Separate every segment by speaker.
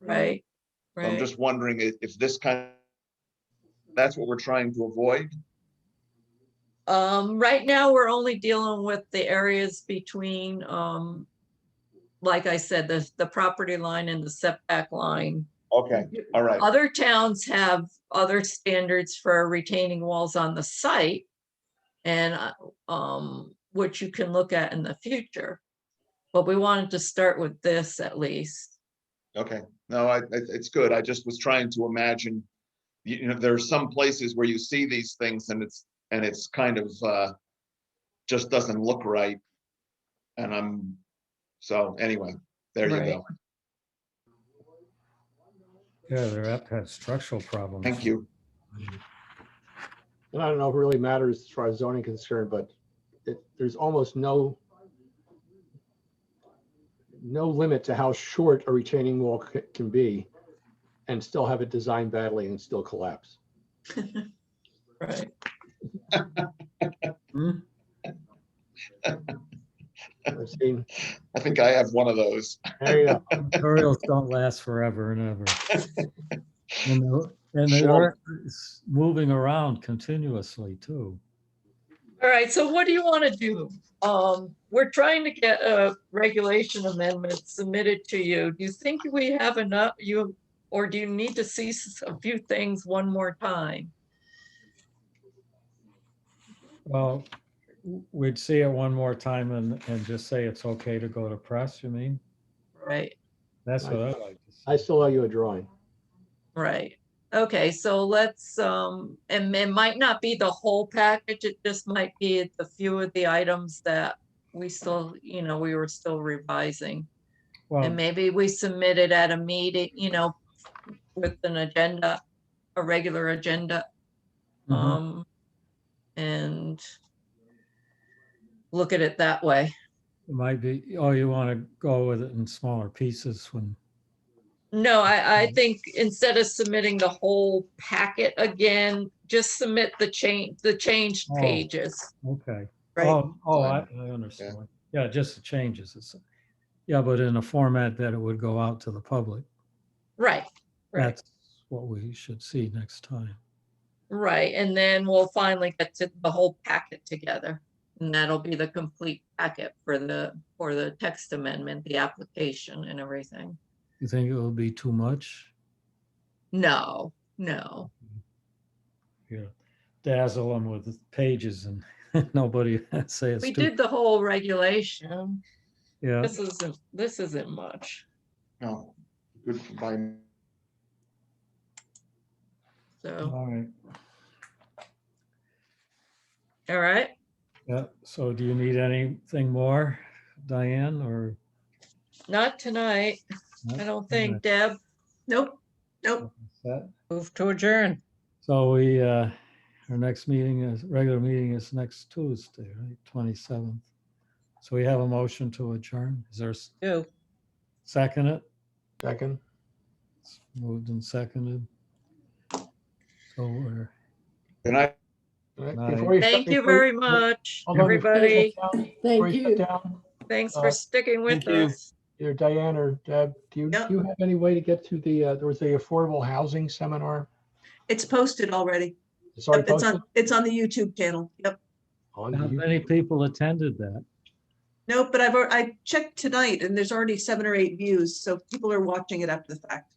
Speaker 1: right,
Speaker 2: So I'm
Speaker 1: right.
Speaker 2: just wondering if, if this kind, that's what we're trying to avoid?
Speaker 1: Um, right now, we're only dealing with the areas between, um, like I said, the, the property line and the setback line.
Speaker 2: Okay, all right,
Speaker 1: Other towns have other standards for retaining walls on the site. And, uh, um, which you can look at in the future. But we wanted to start with this at least.
Speaker 2: okay. No, I, it- it's good. I just was trying to imagine, you you know, there are some places where you see these things and it's, and it's kind of, uh, just doesn't look right. And I'm, so anyway, there you
Speaker 1: Right.
Speaker 2: go.
Speaker 3: Yeah, they're apt to have structural problems.
Speaker 2: Thank you.
Speaker 4: And I don't know if it really matters as far as zoning concern, but it, there's almost no no limit to how short a retaining wall c- can be and still have it designed badly and still collapse.
Speaker 1: Right.
Speaker 4: I've seen,
Speaker 2: I think I have one of those.
Speaker 4: there you go.
Speaker 3: Tutorials don't last forever and ever. And the- And they
Speaker 2: Sure.
Speaker 3: are s- moving around continuously too.
Speaker 1: All right, so what do you want to do? Um, we're trying to get a regulation amendment submitted to you. Do you think we have enough, you, or do you need to see s- a few things one more time?
Speaker 3: Well, w- we'd see it one more time and, and just say it's okay to go to press, you mean?
Speaker 1: Right,
Speaker 3: That's what I like to
Speaker 4: I
Speaker 3: see.
Speaker 4: still owe you a drawing.
Speaker 1: right. Okay, so let's, um, and it might not be the whole package, it just might be the few of the items that we still, you know, we were still revising. And
Speaker 3: Well,
Speaker 1: maybe we submit it at a meeting, you know, with an agenda, a regular agenda.
Speaker 3: Mhm.
Speaker 1: Um, and look at it that way.
Speaker 3: it might be, oh, you want to go with it in smaller pieces when,
Speaker 1: No, I,
Speaker 3: Mm-hmm.
Speaker 1: I think instead of submitting the whole packet again, just submit the change, the changed
Speaker 3: Oh.
Speaker 1: pages,
Speaker 3: okay.
Speaker 1: right?
Speaker 3: Oh, oh, I, I understand. Yeah, just the changes. It's- Yeah, but in a format that it would go out to the public.
Speaker 1: Right, right,
Speaker 3: That's what we should see next time.
Speaker 1: right. And then we'll finally get to the whole packet together. And that'll be the complete packet for the, for the text amendment, the application and everything.
Speaker 3: You think it will be too much?
Speaker 1: No, no,
Speaker 3: Yeah, dazzle them with pages and nobody say it's
Speaker 1: we
Speaker 3: too.
Speaker 1: did the whole regulation.
Speaker 3: Yeah,
Speaker 1: This isn't, this isn't much.
Speaker 2: No, Oh, good by,
Speaker 1: So,
Speaker 3: all right.
Speaker 1: all right.
Speaker 3: Yeah, so do you need anything more, Diane, or?
Speaker 1: Not tonight. I don't think, Deb. Nope, nope.
Speaker 3: That-
Speaker 1: Move to adjourn.
Speaker 3: So we, uh, our next meeting is, regular meeting is next Tuesday, right, twenty-seventh. So we have a motion to adjourn. Is there a
Speaker 1: Do.
Speaker 3: second it?
Speaker 4: Second,
Speaker 3: It's Moved and seconded. So we're.
Speaker 2: and I,
Speaker 4: All right,
Speaker 3: Nice.
Speaker 4: before you shut-
Speaker 1: Thank you
Speaker 4: before-
Speaker 1: very much,
Speaker 4: hold on, before you
Speaker 1: everybody.
Speaker 4: shut down- before
Speaker 5: Thank
Speaker 4: you shut
Speaker 5: you.
Speaker 4: down,
Speaker 1: Thanks
Speaker 4: uh,
Speaker 1: for sticking with
Speaker 4: thank you.
Speaker 1: us.
Speaker 4: Either Diane or Deb, do you, do
Speaker 6: Yeah.
Speaker 4: you have any way to get to the, uh, there was the affordable housing seminar?
Speaker 6: It's posted already.
Speaker 4: It's already
Speaker 6: Yep, It's on,
Speaker 4: Oh, posted?
Speaker 6: it's on the YouTube channel. Yep.
Speaker 4: On
Speaker 3: Not
Speaker 4: YouTube.
Speaker 3: many people attended that.
Speaker 6: No, but I've, al- I checked tonight and there's already seven or eight views, so people are watching it after the fact.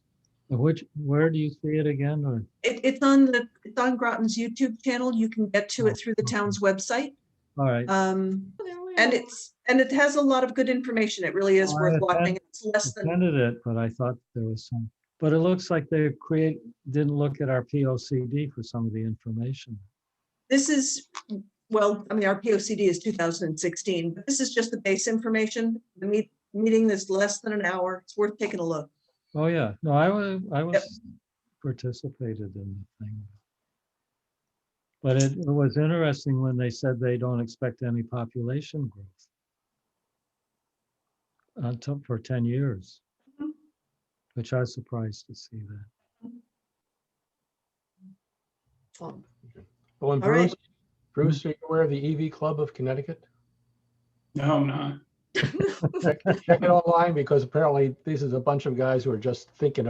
Speaker 3: Which, where do you see it again or?
Speaker 6: It, it's on the, it's on Groton's YouTube channel. You can get to it through the town's website.
Speaker 3: All right,
Speaker 6: Um, and it's, and it has a lot of good information. It really is
Speaker 3: Oh, I
Speaker 6: worth
Speaker 3: had that-
Speaker 6: watching. It's less than,
Speaker 3: attended it, but I thought there was some, but it looks like they create, didn't look at our P O C D for some of the information.
Speaker 6: this is, well, I mean, our POCD is two thousand and sixteen, but this is just the base information. The meet, meeting is less than an hour. It's worth taking a look.
Speaker 3: Oh, yeah, no, I was, I was participated in the thing. But it it was interesting when they said they don't expect any population growth on top for ten years,
Speaker 6: Mhm.
Speaker 3: which I was surprised to see that.
Speaker 4: Oh, and
Speaker 6: All right.
Speaker 4: Bruce, Bruce, are you aware of the EV Club of Connecticut?
Speaker 7: No, I'm not.
Speaker 4: Check check it online because apparently this is a bunch of guys who are just thinking